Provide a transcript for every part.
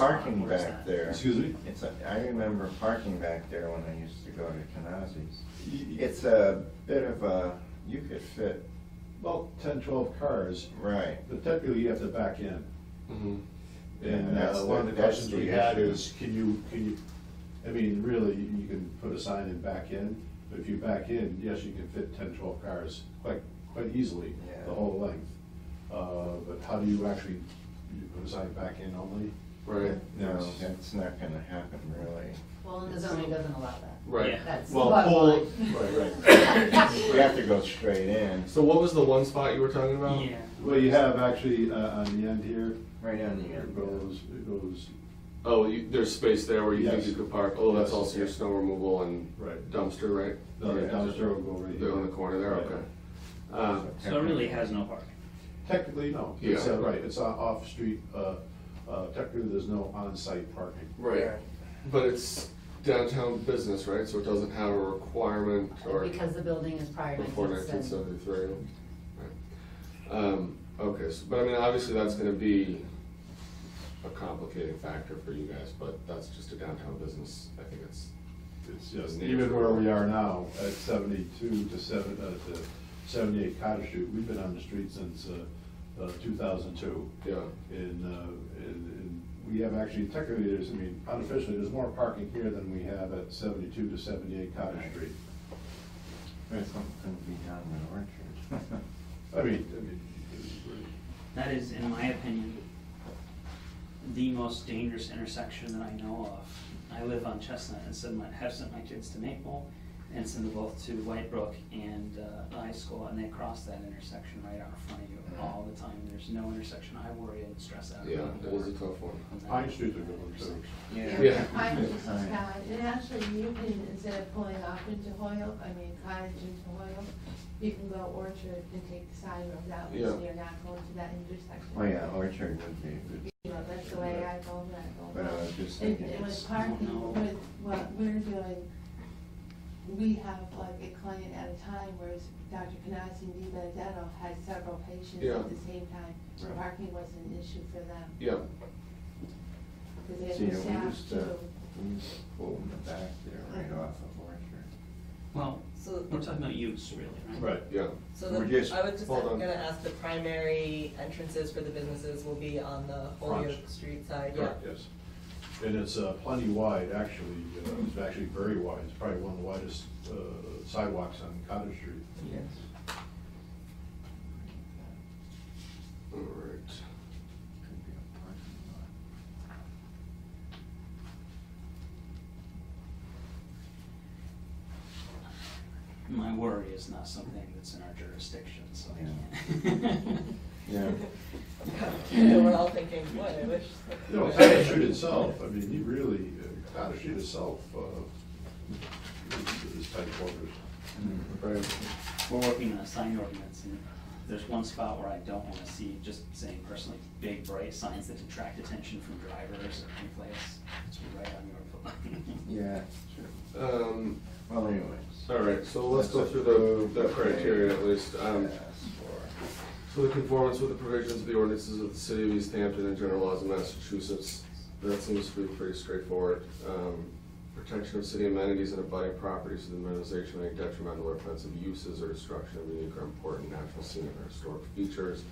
parking back there. Excuse me? It's, a- I remember parking back there when I used to go to Kanazi's. Y- y- It's a bit of a, you could fit, About ten, twelve cars, right, but technically you have to back in. Mm-hmm. And Yeah, uh, that's one of the- the that's questions the we had issue. is, can you, can you, I mean, really, you you can put a sign and back in, but if you back in, yes, you can fit ten, twelve cars quite, quite easily, Yeah. the whole length. Uh, But how do you actually, you put a sign back in only? Right, no, Yes. that's not gonna happen really. Well, and the zoning doesn't allow that. right. Yeah. That's the Well, bottom pull- line. Right, right. You have to go straight in, So what was the one spot you were talking about? Yeah. Well, you have actually uh, on the end here, right on the it end. goes, it goes, Oh, you, there's space there where you think Yes. you could park. Oh, that's Yes. also your snow removal and right, dumpster, right? the other Yeah. dumpster will go right They're on the here. corner there, Right. okay. Uh, So it really has no parking. Technically, no, it's, uh, Yeah. right, it's on- off-street, uh, uh, technically, there's no on-site parking. right, but it's downtown business, right? So it doesn't have a requirement or Because the building is prior to before nineteen 1970. seventy-three. Um, okay, so, but I mean, obviously that's gonna be a complicating factor for you guys, but that's just a downtown business. I think it's, It's just, Native even where we Vermont. are now, at seventy-two to seven, uh, to seventy-eight Cottage Street, we've been on the street since, uh, uh, two thousand two. yeah. And, uh, and, and we have actually, technically, there's, I mean, unofficially, there's more parking here than we have at seventy-two to seventy-eight Cottage Street. There's something to be done in Orchard. I mean, I mean, That is, in my opinion, the most dangerous intersection that I know of. I live on Chestnut and send my, have sent my kids to Maple and send them both to White Brook and uh, high school, and they cross that intersection right out in front of you all the time. There's no intersection I worry and stress out Yeah, about it more was a tough one. than that Pine Street's a good one, too. Yeah. Cottage is Fine. Cottage, and actually you can, instead of pulling off into Hoyle, I mean Cottage into Hoyle, you can go Orchard and take the side road out, Yeah. so you're not going to that intersection. Oh, yeah, Orchard would be a good, You know, that's the way I go, when I go. but I was just And thinking, and it's, with parking, No. with what we're doing, we have like a client at a time, whereas Dr. Canasi and Di Benedetto had several patients Yeah. at the same time. Right. Parking was an issue for them, Yeah, because they See, had we uh, the staff used to- to. we pull in the back there, right off of Orchard. Well, So, we're talking about use, really, right? Right. yeah. so We're the, just- I would just, hold I'm on. gonna ask, the primary entrances for the businesses will be on the Front. Holyoke Street side, yeah? Correct, yes. And it's uh, plenty wide, actually, uh, it's actually very wide, it's probably one of the widest uh, sidewalks on Cottage Street. Yes. All right. Could be a parking lot. My worry is not something that's in our jurisdiction, so I Yeah. can't. Yeah. And we're all thinking, boy, I wish. You know, Cottage Street itself, I mean, you really, uh, Cottage Street itself, uh, is tight quarters. Right. We're working on a sign ordinance, and there's one spot where I don't wanna see, just saying personally, big bright signs that detract attention from drivers or anyplace. It's right on your foot. Yeah, sure. Um, Well, anyways. all right, so let's go That's through approved, the, the okay. criteria at least. Um, Yes, or- so the conformance with the provisions of the ordinances of the city of East Hampton and general laws of Massachusetts. That seems to be pretty straightforward. Um, protection of city amenities and abutting properties to the minimization of any detrimental or offensive uses or destruction of unique or important natural scenic or historic features.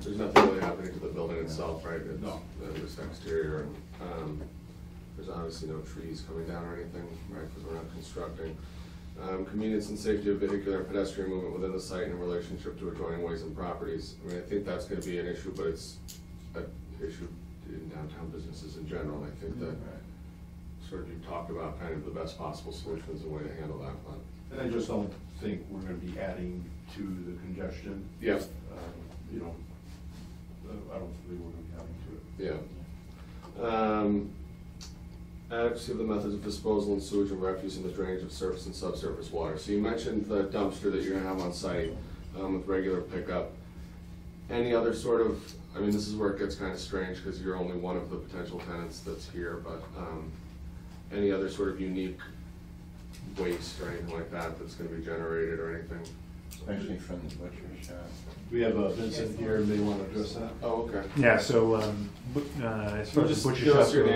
There's nothing really happening to the building itself, right? It's- No. uh, Just exterior and, um, there's obviously no trees coming down or anything, right, because we're not constructing. Um, convenience and safety of vehicular and pedestrian movement within the site in relationship to adjoining ways and properties. I mean, I think that's gonna be an issue, but it's an issue in downtown businesses in general. I think that sort of you talked about kind of the best possible solutions and way to handle that one. And I just don't think we're gonna be adding to the congestion, Yeah, uh, you know, uh, I don't think we're gonna be adding to it. yeah. Um, Adequacy of the methods of disposal and sewage and refuse and the drainage of surface and subsurface water. So you mentioned the dumpster that you're gonna have on site um, with regular pickup. Any other sort of, I mean, this is where it gets kind of strange because you're only one of the potential tenants that's here, but um, any other sort of unique waste or anything like that that's gonna be generated or anything? especially from the butcher shop. We have uh, Vincent here, may want to address that? Oh, okay. Yeah, so, um, but, uh, as far You as just the butcher give us shop your goes-